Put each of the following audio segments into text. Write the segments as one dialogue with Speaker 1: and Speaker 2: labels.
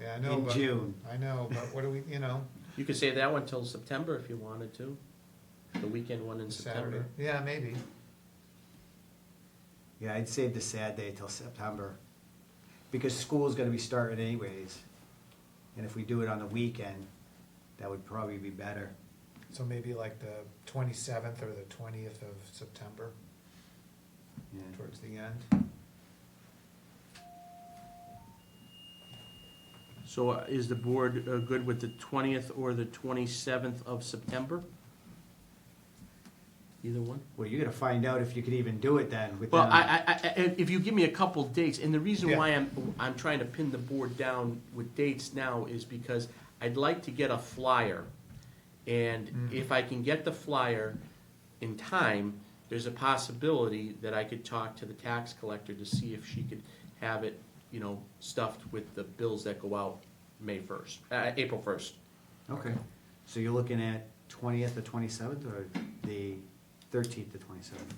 Speaker 1: Yeah, I know,
Speaker 2: in
Speaker 1: but-
Speaker 2: June.
Speaker 1: I know, but what do we, you know,
Speaker 3: You could save that one till September if you wanted to, the weekend one in
Speaker 1: Saturday,
Speaker 3: September.
Speaker 1: yeah, maybe,
Speaker 2: Yeah, I'd save the sad day till September, because school's gonna be starting anyways. And if we do it on the weekend, that would probably be better.
Speaker 1: so maybe like the twenty-seventh or the twentieth of September,
Speaker 2: Yeah.
Speaker 1: towards the end.
Speaker 3: So uh, is the board uh, good with the twentieth or the twenty-seventh of September? Either one?
Speaker 2: Well, you're gonna find out if you could even do it then with
Speaker 3: Well,
Speaker 2: them.
Speaker 3: I, I, I, and if you give me a couple dates, and the reason
Speaker 1: Yeah.
Speaker 3: why I'm, I'm trying to pin the board down with dates now is because I'd like to get a flyer. And
Speaker 2: Mm.
Speaker 1: Mhm.
Speaker 3: if I can get the flyer in time, there's a possibility that I could talk to the tax collector to see if she could have it, you know, stuffed with the bills that go out May first, uh, April first.
Speaker 2: Okay, so you're looking at twentieth to twenty-seventh, or the thirteenth to twenty-seventh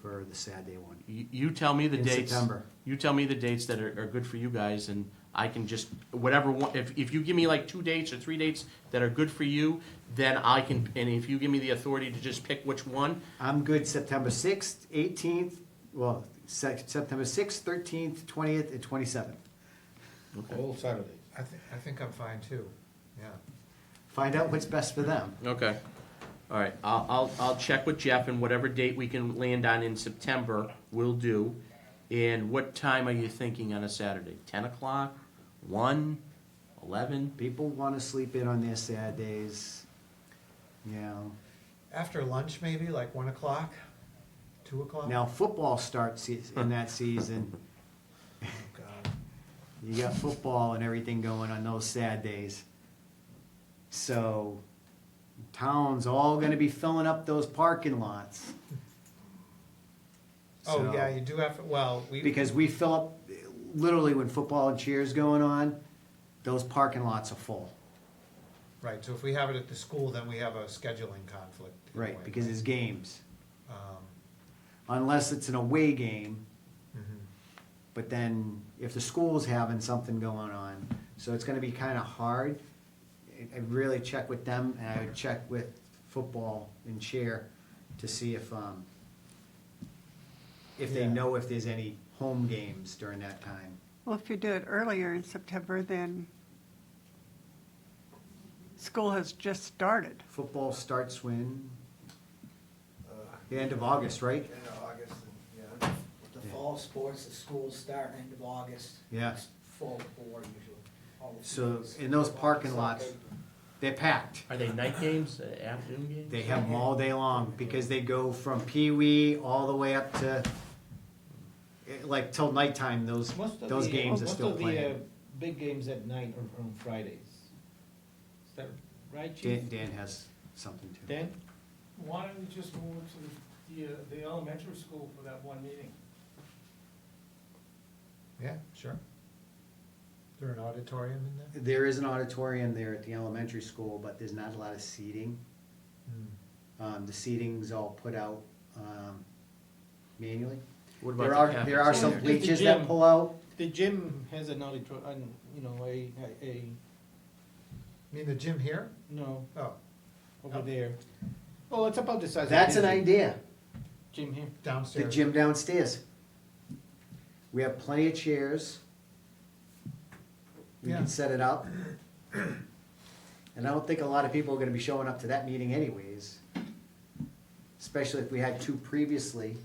Speaker 2: for the sad day one?
Speaker 3: You, you tell me the
Speaker 2: In
Speaker 3: dates.
Speaker 2: September.
Speaker 3: You tell me the dates that are, are good for you guys, and I can just, whatever, one- if, if you give me like two dates or three dates that are good for you, then I can, and if you give me the authority to just pick which one,
Speaker 2: I'm good September sixth, eighteenth, well, sec- September sixth, thirteenth, twentieth, and twenty-seventh.
Speaker 4: All Saturdays.
Speaker 1: I think, I think I'm fine too, yeah.
Speaker 2: Find out what's best for them.
Speaker 3: Okay. All right, I'll, I'll, I'll check with Jeff and whatever date we can land on in September, we'll do. And what time are you thinking on a Saturday? Ten o'clock, one, eleven?
Speaker 2: People wanna sleep in on their sad days, you know.
Speaker 1: After lunch, maybe, like one o'clock, two o'clock?
Speaker 2: Now, football starts se- in that season.
Speaker 1: Oh, God.
Speaker 2: You got football and everything going on those sad days. So, town's all gonna be filling up those parking lots.
Speaker 1: Oh,
Speaker 2: So-
Speaker 1: yeah, you do have, well, we,
Speaker 2: Because we fill up, literally when football and cheers going on, those parking lots are full.
Speaker 1: right, so if we have it at the school, then we have a scheduling conflict. in a
Speaker 2: Right,
Speaker 1: way,
Speaker 2: because it's games.
Speaker 1: Um,
Speaker 2: Unless it's an away game,
Speaker 1: mhm.
Speaker 2: But then if the school's having something going on, so it's gonna be kinda hard. I- I'd really check with them and I would check with football and cheer to see if, um, if they
Speaker 1: Yeah.
Speaker 2: know if there's any home games during that time.
Speaker 5: Well, if you do it earlier in September, then school has just started.
Speaker 2: Football starts when,
Speaker 6: Uh,
Speaker 2: the end of August, right?
Speaker 6: End of August, and, yeah. With the
Speaker 2: Yeah.
Speaker 6: fall sports, the schools start end of August.
Speaker 2: Yeah.
Speaker 6: It's Full bore usually. all the
Speaker 2: So,
Speaker 6: fields.
Speaker 2: in those parking
Speaker 6: Soccer.
Speaker 2: lots, they're packed.
Speaker 3: Are they night games, uh, afternoon games?
Speaker 2: They have them all day long because they go from pee-wee all the way up to, eh, like till nighttime, those,
Speaker 4: Most of
Speaker 2: those
Speaker 4: the-
Speaker 2: games are still
Speaker 4: Most of
Speaker 2: playing.
Speaker 4: the uh, big games at night are on Fridays. Is that right,
Speaker 2: Dan,
Speaker 4: Chief?
Speaker 2: Dan has something to
Speaker 4: Dan?
Speaker 7: Why don't we just move to the, the, uh, the elementary school for that one meeting?
Speaker 1: Yeah, sure. Is there an auditorium in there?
Speaker 2: There is an auditorium there at the elementary school, but there's not a lot of seating.
Speaker 1: Hmm.
Speaker 2: Um, the seating's all put out, um, manually.
Speaker 3: What about
Speaker 2: There
Speaker 3: the
Speaker 2: are, there are
Speaker 3: cafeteria?
Speaker 2: some
Speaker 4: Just the
Speaker 2: bleachers that
Speaker 4: gym.
Speaker 2: pull out.
Speaker 4: The gym has an auditor, an, you know, a, a- a,
Speaker 1: You mean the gym here?
Speaker 4: no,
Speaker 1: Oh,
Speaker 4: over there. Oh, it's about the size of
Speaker 2: That's
Speaker 4: this
Speaker 2: an idea,
Speaker 4: Gym here.
Speaker 2: the
Speaker 1: downstairs.
Speaker 2: gym downstairs. We have plenty of chairs. We
Speaker 1: Yeah.
Speaker 2: can set it up. And I don't think a lot of people are gonna be showing up to that meeting anyways. Especially if we had two previously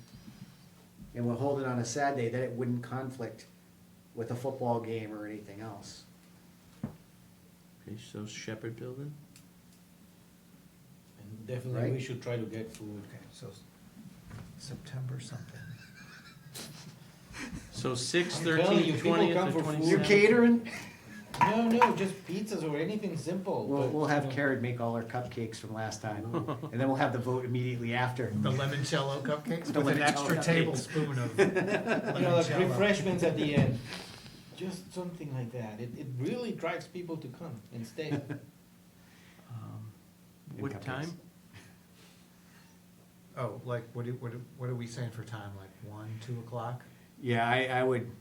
Speaker 2: and we're holding on a Saturday, then it wouldn't conflict with a football game or anything else.
Speaker 3: Okay, so Shepherd Building?
Speaker 4: And Definitely, we
Speaker 2: Right.
Speaker 4: should try to get food.
Speaker 1: Okay, so s- September something.
Speaker 3: So six,
Speaker 4: I'm telling
Speaker 3: thirteen,
Speaker 4: you, people
Speaker 3: twentieth,
Speaker 4: come
Speaker 3: or
Speaker 4: for food.
Speaker 3: twenty-seventh?
Speaker 2: You're catering?
Speaker 4: No, no, just pizzas or anything simple.
Speaker 2: We'll,
Speaker 4: but,
Speaker 2: we'll have
Speaker 4: you know.
Speaker 2: Karen make all our cupcakes from last time and then we'll have the vote immediately after.
Speaker 1: The limoncello cupcakes
Speaker 2: The
Speaker 1: with an
Speaker 2: limoncello
Speaker 1: extra
Speaker 2: cupcakes.
Speaker 1: tablespoon of
Speaker 4: You know, like
Speaker 1: limoncello.
Speaker 4: refreshments at the end. Just something like that. It, it really drives people to come and stay.
Speaker 3: Um,
Speaker 2: And
Speaker 3: What
Speaker 2: cupcakes.
Speaker 3: time?
Speaker 1: Oh, like, what do, what do, what are we saying for time, like one, two o'clock?
Speaker 2: Yeah, I, I would,